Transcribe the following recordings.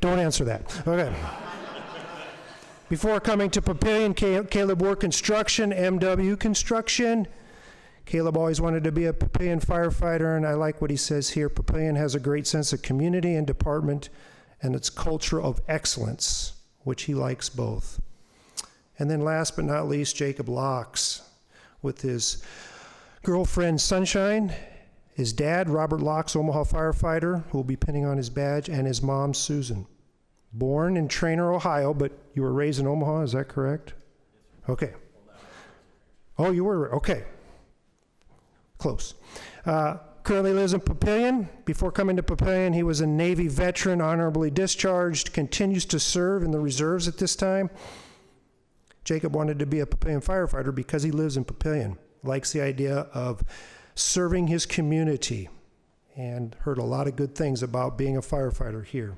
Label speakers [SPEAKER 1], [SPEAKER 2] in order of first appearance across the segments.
[SPEAKER 1] Don't answer that. Okay. Before coming to Papillion, Ca- Caleb worked construction, MW Construction. Caleb always wanted to be a Papillion firefighter, and I like what he says here. Papillion has a great sense of community and department and its culture of excellence, which he likes both. And then last but not least, Jacob Locks with his girlfriend Sunshine, his dad, Robert Locks, Omaha firefighter, who will be pinning on his badge, and his mom, Susan. Born in Trainer, Ohio, but you were raised in Omaha, is that correct? Okay. Oh, you were, okay. Close. Uh, Currently lives in Papillion. Before coming to Papillion, he was a Navy veteran, honorably discharged, continues to serve in the reserves at this time. Jacob wanted to be a Papillion firefighter because he lives in Papillion, likes the idea of serving his community, and heard a lot of good things about being a firefighter here.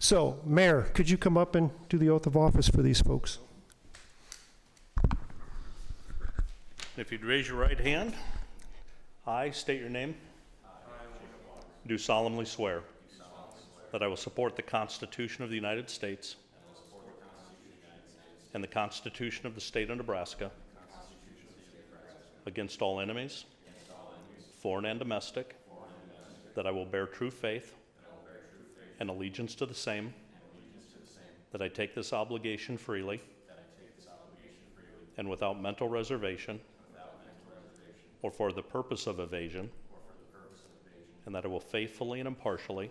[SPEAKER 1] So, Mayor, could you come up and do the oath of office for these folks?
[SPEAKER 2] If you'd raise your right hand, I state your name. Do solemnly swear. That I will support the Constitution of the United States. And the Constitution of the State of Nebraska. Against all enemies. Foreign and domestic. That I will bear true faith. And allegiance to the same. That I take this obligation freely. And without mental reservation. Or for the purpose of evasion. And that I will faithfully and impartially.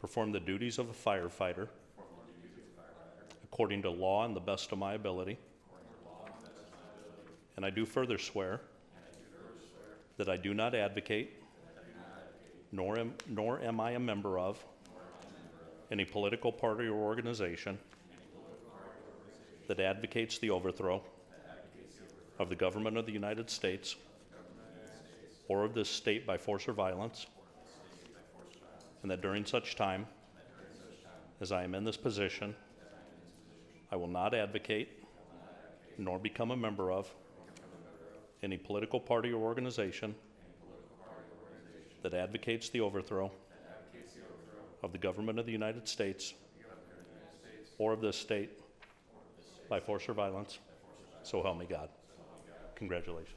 [SPEAKER 2] Perform the duties of a firefighter. According to law and the best of my ability. And I do further swear. That I do not advocate. Nor am, nor am I a member of. Any political party or organization. That advocates the overthrow. Of the government of the United States. Or of this state by force or violence. And that during such time. As I am in this position. I will not advocate. Nor become a member of. Any political party or organization. That advocates the overthrow. Of the government of the United States. Or of this state. By force or violence. So help me God. Congratulations.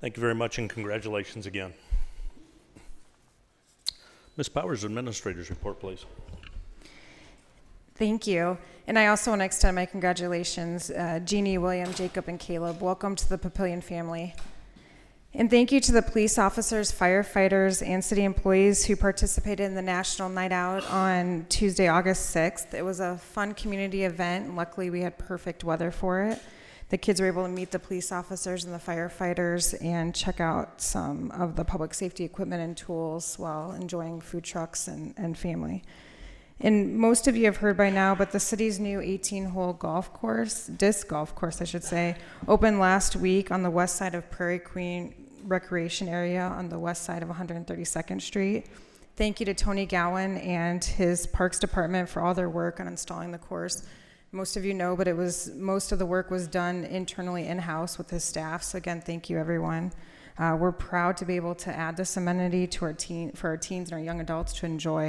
[SPEAKER 2] Thank you very much and congratulations again. Ms. Powers, Administrator's Report, please.
[SPEAKER 3] Thank you. And I also want to extend my congratulations, uh, Jeannie, William, Jacob, and Caleb. Welcome to the Papillion family. And thank you to the police officers, firefighters, and city employees who participated in the National Night Out on Tuesday, August 6th. It was a fun community event, and luckily we had perfect weather for it. The kids were able to meet the police officers and the firefighters and check out some of the public safety equipment and tools while enjoying food trucks and, and family. And most of you have heard by now, but the city's new 18 hole golf course, disc golf course, I should say, opened last week on the west side of Prairie Queen Recreation Area on the west side of 132nd Street. Thank you to Tony Gowan and his Parks Department for all their work on installing the course. Most of you know, but it was most of the work was done internally in house with his staff. So, again, thank you, everyone. Uh, we're proud to be able to add this amenity to our teen, for our teens and our young adults to enjoy.